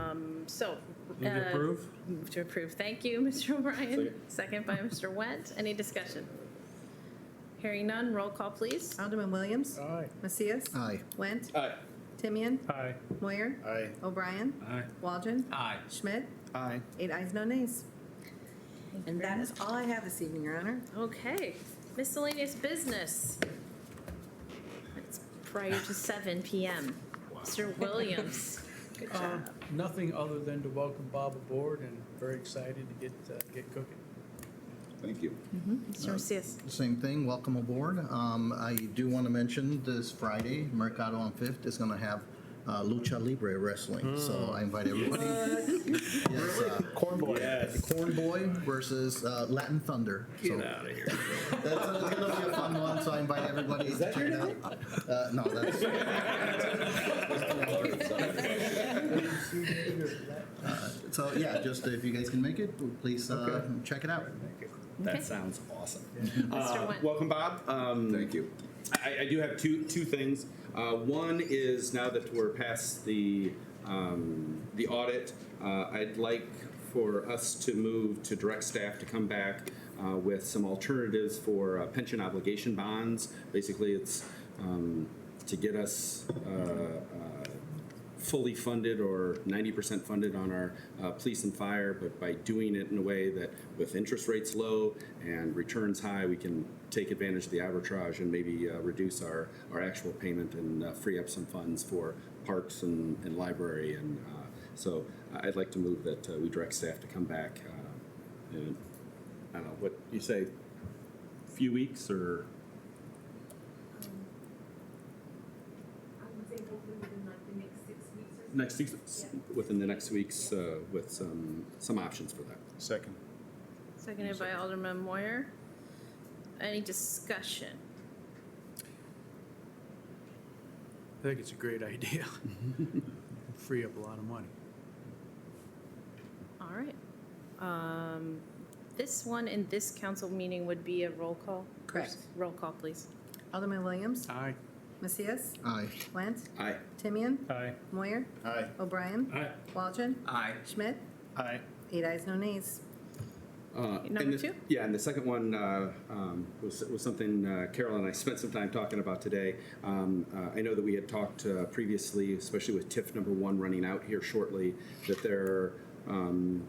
Um, So. Move to uh, approve? Move to approve. Thank you, Mr. O'Brien. Second by Mr. Wendt. Any discussion? Hearing none, roll call, please. Alderman Williams. Aye. Macias. Aye. Went. Aye. Timian. Aye. Moyer. Aye. O'Brien. Aye. Waldron. Aye. Schmidt. Aye. Eight ayes, no nays. very And that is all I have this evening, Your Honor. Okay, miscellaneous business. It's prior to seven PM. Mr. Williams. Good job. Nothing other than to welcome Bob aboard and very excited to get, uh, get cooking. Thank you. Mr. Macias. Same thing, welcome aboard. Um, I do want to mention this Friday, Mercado on Fifth is going to have uh, Lucha Libre Wrestling. So I invite everybody. Yes, uh, Corn boy. Yes. Corn Boy versus uh, Latin Thunder. So out of here. that's uh, it's gonna be a fun one. So I invite everybody to check it out. Uh, no, that's so yeah. Just if you guys can make it, please uh, check it out. Okay. That sounds awesome. Mr. Uh, Wendt. Welcome, Bob. Um, Thank you. I, I do have two two things. Uh, one is now that we're past the um, the audit, uh, I'd like for us to move to direct staff to come back uh, with some alternatives for uh, pension obligation bonds. Basically, it's um, to get us. Uh, uh, fully funded or 90% funded on our uh, police and fire, but by doing it in a way that with interest rates low and returns high, we can take advantage of the arbitrage and maybe uh, reduce our, our actual payment and uh, free up some funds for parks and, and library. And uh, so I'd like to move that uh, we direct staff to come back. Uh, in, I don't know, what you say, few weeks or? I would say hopefully within like the next six weeks or so. Next, week's- within the next weeks uh, with some, some options for that. Second. Seconded by Alderman Moyer. Any discussion? I think it's a great idea. Free up a lot of money. All right. Um, This one in this council meeting would be a roll call? Correct. Roll call, please. Alderman Williams. Aye. Macias. Aye. Went. Aye. Timian. Aye. Moyer. Aye. O'Brien. Aye. Waldron. Aye. Schmidt. Aye. Eight ayes, no nays. Uh, and Number the- two? Yeah, and the second one uh, um, was, was something uh, Carol and I spent some time talking about today. Um, uh, I know that we had talked uh, previously, especially with TIF number one running out here shortly, that there um,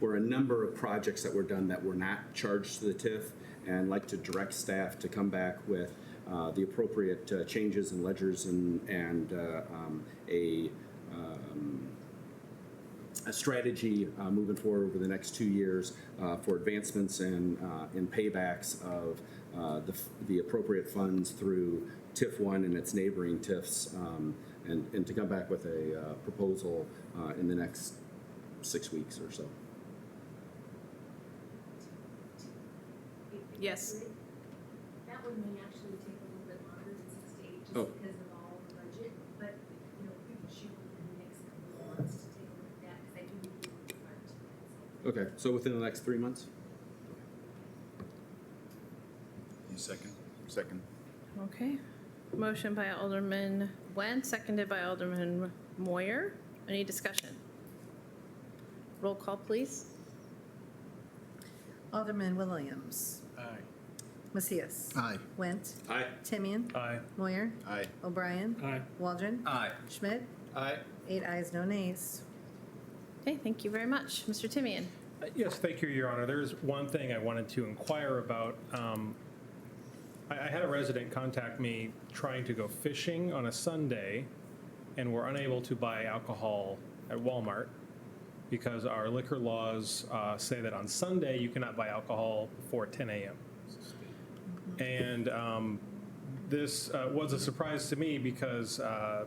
were a number of projects that were done that were not charged to the TIF, and like to direct staff to come back with uh, the appropriate uh, changes and ledgers and and uh, um, a a strategy uh, moving forward over the next two years uh, for advancements and uh, and paybacks of uh, the, f- the appropriate funds through TIF one and its neighboring TIFs, um, and and to come back with a uh, proposal uh, in the next six weeks or so. Yes. That one may actually take a little bit longer than six to eight, just Oh. because of all the budget, but, you know, we can shoot within the next couple of months to take a look at that, because I do need to work hard to that, so. Okay, so within the next three months. Second. Second. Okay. Motion by Alderman Wen, seconded by Alderman Moyer. Any discussion? Roll call, please. Alderman Williams. Aye. Macias. Aye. Went. Aye. Timian. Uh, Aye. Moyer. Aye. O'Brien. Aye. Waldron. Aye. Schmidt. Aye. Eight ayes, no nays. Okay, thank you very much. Mr. Timian? Yes, thank you, Your Honor. There is one thing I wanted to inquire about. Um, I I had a resident contact me trying to go fishing on a Sunday, and were unable to buy alcohol at Walmart because our liquor laws uh, say that on Sunday, you cannot buy alcohol before 10 a.m. And um, this uh, was a surprise to me because uh,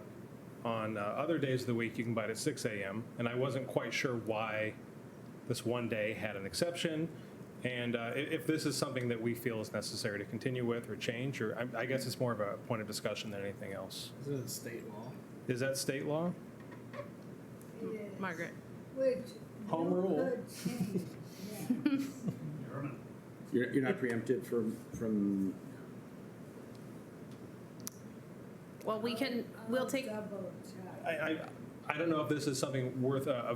on uh, other days of the week, you can buy it at 6 a.m., and I wasn't quite sure why this one day had an exception. And uh, i- if this is something that we feel is necessary to continue with or change, or I- I guess it's more of a point of discussion than anything else. Is it a state law? Is that state law? Margaret? Home rule. You're, you're not preempted from from Well, we can, we'll take. I, I, I don't know if this is something worth a, a